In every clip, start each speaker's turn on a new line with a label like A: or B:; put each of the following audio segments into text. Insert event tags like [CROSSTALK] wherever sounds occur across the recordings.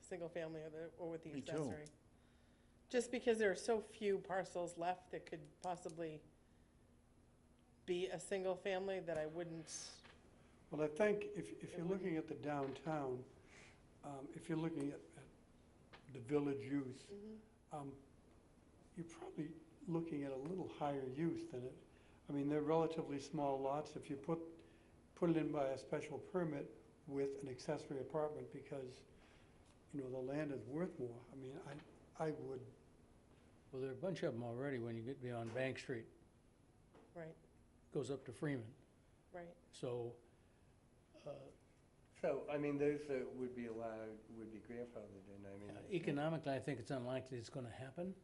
A: single family or the, or with the
B: Me too.
A: accessory. Just because there are so few parcels left that could possibly be a single family that I wouldn't,
C: Well, I think if, if you're
A: It
C: looking at the downtown, um, if you're looking at, at the village use, um, you're probably looking at a little higher use than it. I mean, they're relatively small lots. If you put, put it in by a special permit with an accessory apartment because, you know, the land is worth more, I mean, I, I would,
D: Well, there are a bunch of them already when you get beyond Bank Street,
A: right,
D: goes up to Freeman.
A: right.
D: So, uh,
E: So, I mean, those that would be allowed would be grandfathered in, I mean,
D: economically, I think it's unlikely it's gonna happen.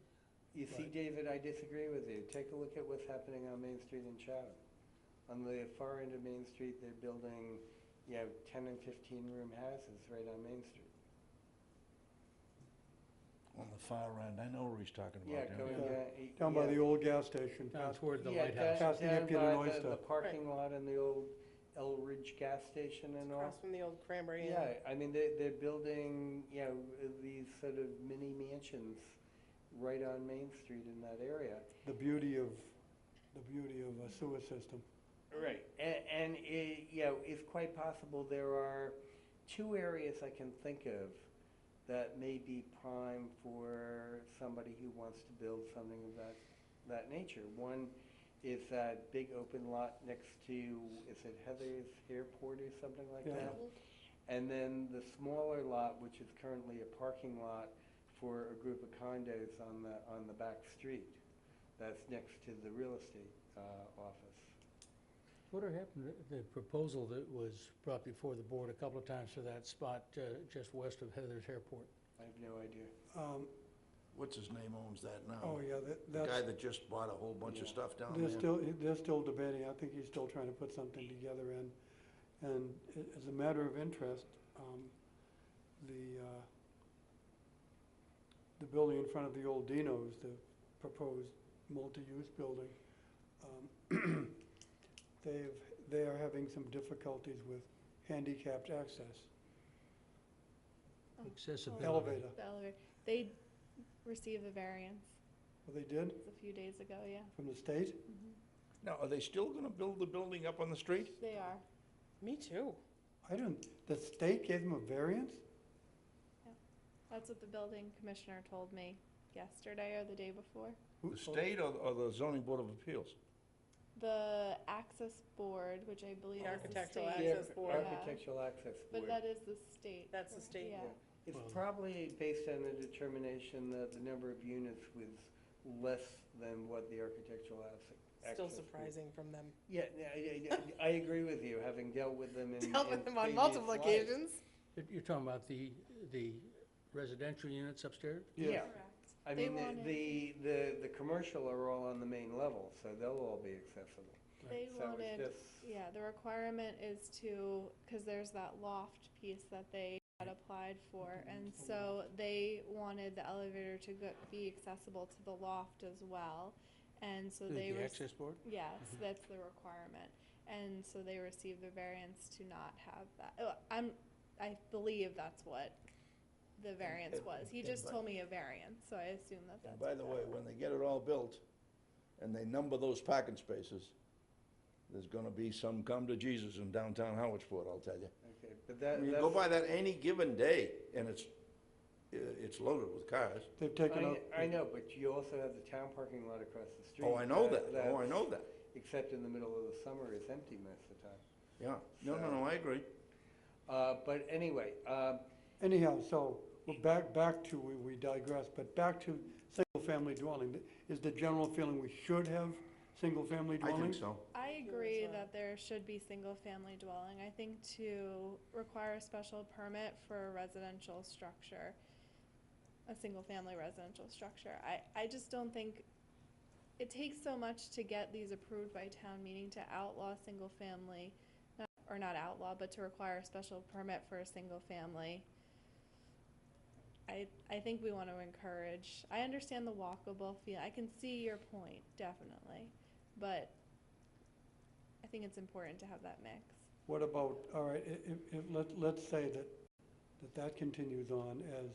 E: you see,
D: right.
E: David, I disagree with you. Take a look at what's happening on Main Street in Chatham. On the far end of Main Street, they're building, you know, ten and fifteen room houses right on Main Street.
B: on the far end, I know what he's talking
E: Yeah,
B: about. there.
E: going
C: Yeah.
E: down. eight-
C: down by
E: yeah.
C: the old gas station.
D: Down
C: past-
D: toward the
E: Yeah,
D: lighthouse.
E: down-
C: Past the
E: down
C: Empire
E: by
C: and
E: the- The
C: Oyster.
E: parking lot and the old El Ridge gas station
A: It's
E: and all.
A: across from the old Cranberry Inn.
E: Yeah, I mean, they're, they're building, you know, these sort of mini mansions right on Main Street in that area.
C: The beauty of, the beauty of a sewer system.
E: Right. And, and it, you know, it's quite possible there are two areas I can think of that may be prime for somebody who wants to build something of that, that nature. One is that big open lot next to, is it Heather's Airport or something like
C: Yeah.
E: that? And then the smaller lot, which is currently a parking lot for a group of condos on the, on the back street, that's next to the real estate, uh, office.
D: What had happened, to the proposal that was brought before the board a couple of times for that spot uh, just west of Heather's Airport?
E: I have no idea.
C: Um,
B: What's his name owns that now?
C: oh, yeah, that,
B: The
C: that's.
B: guy that just bought a whole bunch of
E: Yeah.
B: stuff down
C: They're
B: there.
C: still, they're still debating, I think he's still trying to put something together, and, and a- as a matter of interest, um, the, uh, the building in front of the old Dino's, the proposed multi-use building, um, [CLEARS THROAT] they've, they are having some difficulties with handicapped access,
F: Oh,
D: Accessibility.
C: elevator,
F: The elevator. They received a variance
C: what they did
F: a few days ago, yeah.
C: from the state,
A: Mm-hmm.
B: Now, are they still gonna build the building up on the street?
F: They are.
A: Me too.
C: I don't, the state gave them a variance?
F: That's what the building commissioner told me yesterday or the day before.
C: Who-
B: The state or, or the zoning board of appeals?
F: The access board, which I believe
A: The
F: is the
A: architectural
F: state.
A: access board.
E: Architectural access
F: But
E: board.
F: that is the state.
A: That's the state.
F: Yeah.
E: It's
D: Well-
E: probably based on the determination that the number of units was less than what the architectural access.
A: Still
E: access board-
A: surprising from them.
E: Yeah, no, I, I- I agree with you, having dealt with them
A: [LAUGHS]
E: in.
A: Dealt with
E: in
A: them on
E: previous
A: multiple
E: lives.
A: occasions.
D: You're- You're talking about the, the residential units upstairs?
E: Yeah,
F: Correct.
E: I
F: They
E: mean, the,
F: wanted-
E: the, the, the commercial are all on the main level, so they'll all be accessible.
F: They
E: So
F: wanted.
E: it's just.
F: Yeah, the requirement is to, because there's that loft piece that they had applied for, and so they wanted the elevator to go, be accessible to the loft as well, and so
D: The-
F: they.
D: The
F: rec-
D: access board?
F: Yes, that's the requirement, and so they received the variance to not have that, oh, I'm, I believe that's what the variance
B: and-
F: was, he
B: and
F: just
B: by-
F: told me a variance, so I assume that
B: And
F: that's.
B: by
F: what
B: the
F: that
B: way,
F: was.
B: when they get it all built and they number those parking spaces, there's gonna be some come to Jesus in downtown Howardsport, I'll tell you.
E: Okay, but that,
B: You
E: that's.
B: go by that any given day and it's, i- it's loaded with cars.
C: They've taken out.
E: I, I know, but you also have the town parking lot across the street.
B: Oh, I know that, oh, I
E: that's-
B: know that,
E: Except in the middle of the summer, it's empty most of the time.
B: yeah. No, no, no, I agree.
E: Uh, but anyway, um,
C: Anyhow, so, we're back, back to, we we digress, but back to single-family dwelling. Is the general feeling we should have single-family
B: I
C: dwelling?
B: think so.
F: I
A: do as
F: agree
A: well.
F: that there should be single-family dwelling. I think to require a special permit for a residential structure, a single-family residential structure, I, I just don't think, it takes so much to get these approved by town meeting to outlaw single-family, not- or not outlaw, but to require a special permit for a single-family. I, I think we want to encourage, I understand the walkable feel, I can see your point, definitely, but I think it's important to have that mix.
C: What about, all right, i- if, if, let, let's say that, that that continues on as